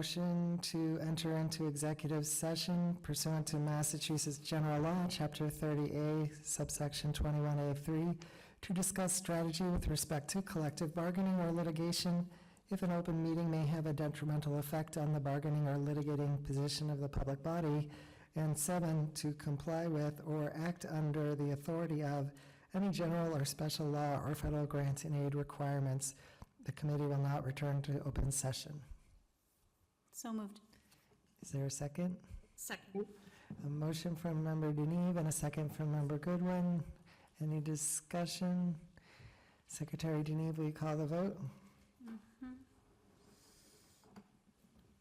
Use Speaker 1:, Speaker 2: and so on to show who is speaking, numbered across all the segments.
Speaker 1: motion to enter into executive session pursuant to Massachusetts General Law, Chapter 30A, subsection 21A3, to discuss strategy with respect to collective bargaining or litigation if an open meeting may have a detrimental effect on the bargaining or litigating position of the public body, and seven, to comply with or act under the authority of any general or special law or federal grants and aid requirements. The committee will not return to open session.
Speaker 2: So moved.
Speaker 1: Is there a second?
Speaker 2: Second.
Speaker 1: A motion from Member Deneve and a second from Member Goodwin. Any discussion? Secretary Deneve, will you call the vote?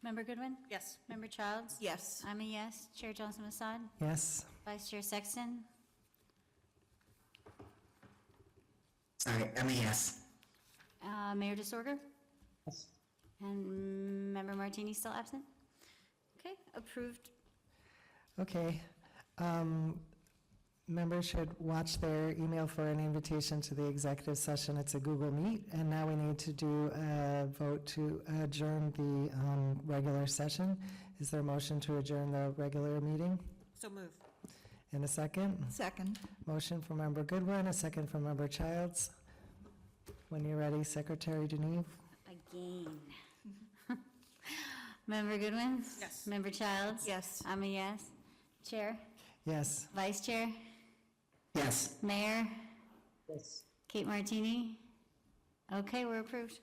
Speaker 2: Member Goodwin? Yes. Member Childs?
Speaker 3: Yes.
Speaker 2: I'm a yes. Chair Johnson Masad?
Speaker 1: Yes?
Speaker 2: Vice Chair Sexton?
Speaker 4: Sorry, MES.
Speaker 2: Uh, Mayor Disorder? And Member Martini still absent? Okay, approved.
Speaker 1: Okay. Um, Members should watch their email for an invitation to the executive session. It's a Google Meet. And now we need to do a vote to adjourn the um, regular session. Is there a motion to adjourn the regular meeting?
Speaker 3: So move.
Speaker 1: In a second?
Speaker 3: Second.
Speaker 1: Motion from Member Goodwin, a second from Member Childs. When you're ready, Secretary Deneve.
Speaker 2: Again. Member Goodwin?
Speaker 3: Yes.
Speaker 2: Member Childs?
Speaker 3: Yes.
Speaker 2: I'm a yes. Chair?
Speaker 1: Yes.
Speaker 2: Vice Chair?
Speaker 4: Yes.
Speaker 2: Mayor? Yes. Kate Martini? Okay, we're approved.